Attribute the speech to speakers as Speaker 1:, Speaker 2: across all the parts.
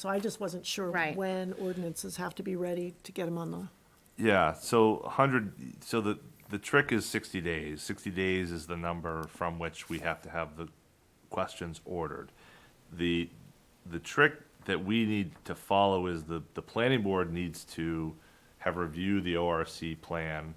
Speaker 1: So I just wasn't sure
Speaker 2: Right.
Speaker 1: when ordinances have to be ready to get them on the,
Speaker 3: Yeah, so hundred, so the, the trick is sixty days. Sixty days is the number from which we have to have the questions ordered. The, the trick that we need to follow is the, the planning board needs to have reviewed the ORC plan,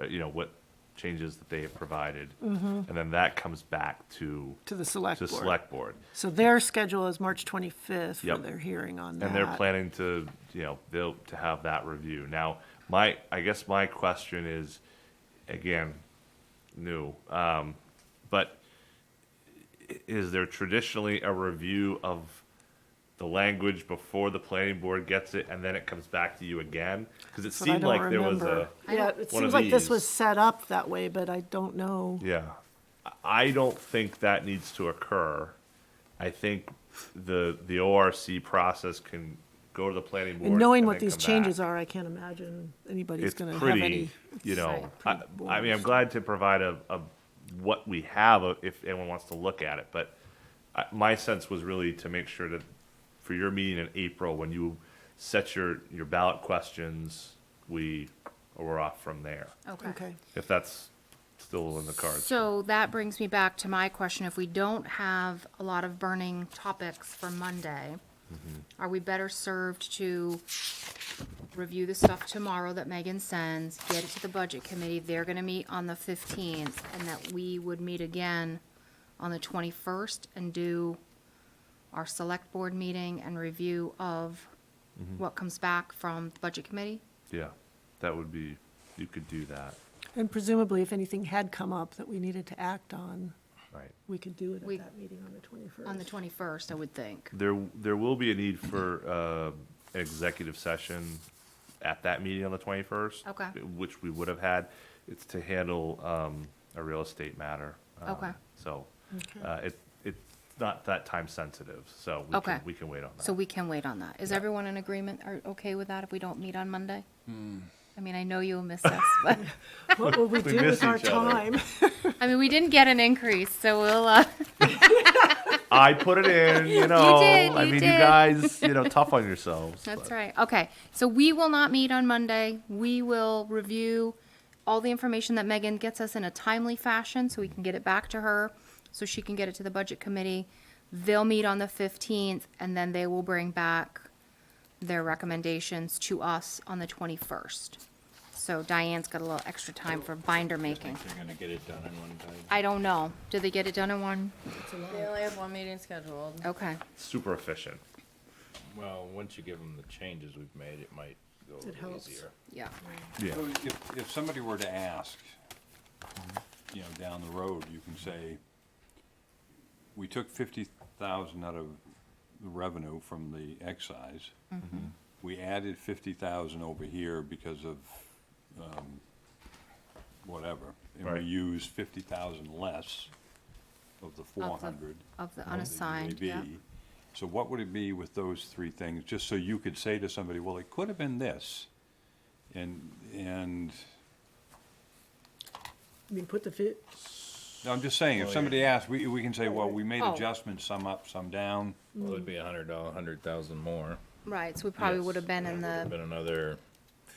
Speaker 3: uh, you know, what changes that they have provided. And then that comes back to,
Speaker 1: Mm-hmm. to the select
Speaker 3: to
Speaker 1: board.
Speaker 3: select board.
Speaker 1: So their schedule is March 25th for
Speaker 3: Yep.
Speaker 1: their hearing on that.
Speaker 3: And they're planning to, you know, they'll, to have that review. Now, my, I guess my question is, again, new, um, but i- is there traditionally a review of the language before the planning board gets it and then it comes back to you again? Cause it
Speaker 1: But I
Speaker 3: seemed
Speaker 1: don't
Speaker 3: like there was
Speaker 1: remember.
Speaker 3: a,
Speaker 1: Yeah, it
Speaker 3: one
Speaker 1: seems
Speaker 3: of
Speaker 1: like this was
Speaker 3: these.
Speaker 1: set up that way, but I don't know.
Speaker 3: yeah. I- I don't think that needs to occur. I think the, the ORC process can go to the planning board.
Speaker 1: And knowing
Speaker 3: and
Speaker 1: what
Speaker 3: then
Speaker 1: these
Speaker 3: come
Speaker 1: changes
Speaker 3: back.
Speaker 1: are, I can't imagine anybody's
Speaker 3: it's
Speaker 1: going to have
Speaker 3: pretty,
Speaker 1: any.
Speaker 3: you know,
Speaker 2: like
Speaker 3: I,
Speaker 1: pretty
Speaker 3: I mean, I'm glad to provide a, a, what we have uh, if anyone wants to look at it, but I, my sense was really to make sure that for your meeting in April, when you set your, your ballot questions, we were off from there,
Speaker 2: Okay.
Speaker 1: Okay,
Speaker 3: if that's still in the cards.
Speaker 2: So that brings me back to my question. If we don't have a lot of burning topics for Monday, are we better served to review the stuff tomorrow that Megan sends, get it to the budget committee? They're gonna meet on the fifteenth, and that we would meet again on the twenty-first and do our select board meeting and review of what comes back from the budget committee?
Speaker 3: Yeah, that would be, you could do that,
Speaker 1: and presumably if anything had come up that we needed to act on,
Speaker 3: right?
Speaker 1: we could do it
Speaker 2: We-
Speaker 1: at that meeting on the 21st.
Speaker 2: On the twenty-first, I would think.
Speaker 3: There, there will be a need for, uh, an executive session at that meeting on the twenty-first.
Speaker 2: Okay.
Speaker 3: Which we would have had. It's to handle, um, a real estate matter. um,
Speaker 2: Okay.
Speaker 3: So, uh, it, it's not that time sensitive, so we
Speaker 2: Okay.
Speaker 3: can, we can wait on that.
Speaker 2: So we can wait on that. Is everyone in agreement or okay with that if we don't meet on Monday? I mean, I know you'll miss us, but,
Speaker 1: What will we
Speaker 3: We
Speaker 1: do
Speaker 3: miss
Speaker 1: with our
Speaker 3: each other.
Speaker 1: time?
Speaker 2: I mean, we didn't get an increase, so we'll, uh,
Speaker 3: I put it in, you know,
Speaker 2: did,
Speaker 3: I
Speaker 2: you
Speaker 3: mean, you
Speaker 2: did.
Speaker 3: guys, you know, tough on yourselves.
Speaker 2: that's
Speaker 3: but-
Speaker 2: right. Okay, so we will not meet on Monday. We will review all the information that Megan gets us in a timely fashion so we can get it back to her, so she can get it to the budget committee. They'll meet on the fifteenth and then they will bring back their recommendations to us on the twenty-first. So Diane's got a little extra time for binder making.
Speaker 4: They're gonna get it done in one time.
Speaker 2: I don't know. Do they get it done in one?
Speaker 5: They only have one meeting scheduled.
Speaker 2: Okay,
Speaker 3: Super efficient.
Speaker 4: Well, once you give them the changes we've made, it might go a
Speaker 1: It
Speaker 4: little
Speaker 1: helps.
Speaker 4: easier.
Speaker 2: yeah.
Speaker 3: Yeah.
Speaker 6: So If, if somebody were to ask, you know, down the road, you can say, we took fifty thousand out of the revenue from the excise. We added fifty thousand over here because of, um, whatever. And we
Speaker 3: Right.
Speaker 6: used fifty thousand less of the four hundred.
Speaker 2: Of the unassigned, yeah.
Speaker 6: So what would it be with those three things, just so you could say to somebody, well, it could have been this, and, and,
Speaker 1: I mean, put the, fi-
Speaker 6: no, I'm just saying, if somebody asks, we, we can say, well, we made
Speaker 2: Oh.
Speaker 6: adjustments, some up, some down.
Speaker 4: Well, it'd be a hundred dollar, hundred thousand more.
Speaker 2: Right, so we probably would have been in
Speaker 4: Would've
Speaker 2: the,
Speaker 4: Been another,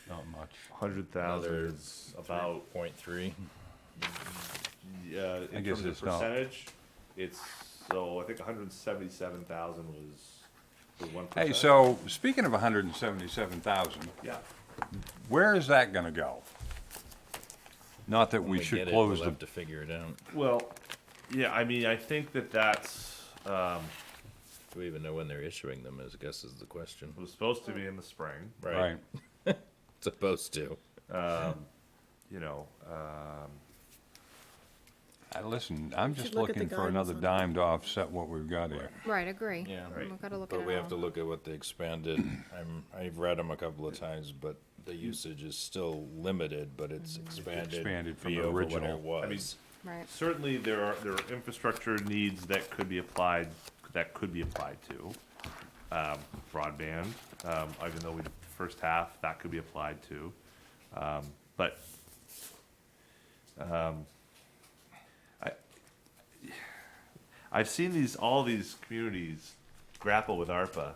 Speaker 6: Not much.
Speaker 3: Hundred
Speaker 4: another
Speaker 3: thousand is about,
Speaker 4: point three.
Speaker 3: uh, in
Speaker 6: guess
Speaker 3: terms of
Speaker 6: it's not.
Speaker 3: percentage, it's, so I think hundred and seventy-seven thousand was the one percent.
Speaker 6: Hey, so, speaking of hundred and seventy-seven thousand,
Speaker 3: Yeah,
Speaker 6: where is that gonna go? Not that
Speaker 4: When
Speaker 6: we
Speaker 4: get
Speaker 6: should
Speaker 4: it,
Speaker 6: close
Speaker 4: we'll
Speaker 6: the,
Speaker 4: Have to figure it out.
Speaker 3: well, yeah, I mean, I think that that's, um,
Speaker 4: Do we even know when they're issuing them, is, I guess is the question.
Speaker 3: was supposed to be in the spring,
Speaker 6: right,
Speaker 4: Supposed to.
Speaker 3: you know, um,
Speaker 6: I, listen, I'm
Speaker 1: We should
Speaker 6: just
Speaker 1: look at the
Speaker 6: looking for
Speaker 1: guidance
Speaker 6: another
Speaker 1: on
Speaker 6: dime to offset what we've got here.
Speaker 2: right, agree.
Speaker 4: Yeah.
Speaker 3: Right.
Speaker 2: We've got to look at
Speaker 4: But we have
Speaker 2: it
Speaker 4: to
Speaker 2: all.
Speaker 4: look at what they expanded. I'm, I've read them a couple of times, but the usage is still limited, but it's expanded.
Speaker 6: expanded from
Speaker 4: be
Speaker 6: the
Speaker 4: over what
Speaker 6: original. I
Speaker 4: it was.
Speaker 2: Right,
Speaker 3: certainly there are, there are infrastructure needs that could be applied, that could be applied to. Um, broadband, um, even though we, first half, that could be applied to. Um, but, um, I, I've seen these, all these communities grapple with ARPA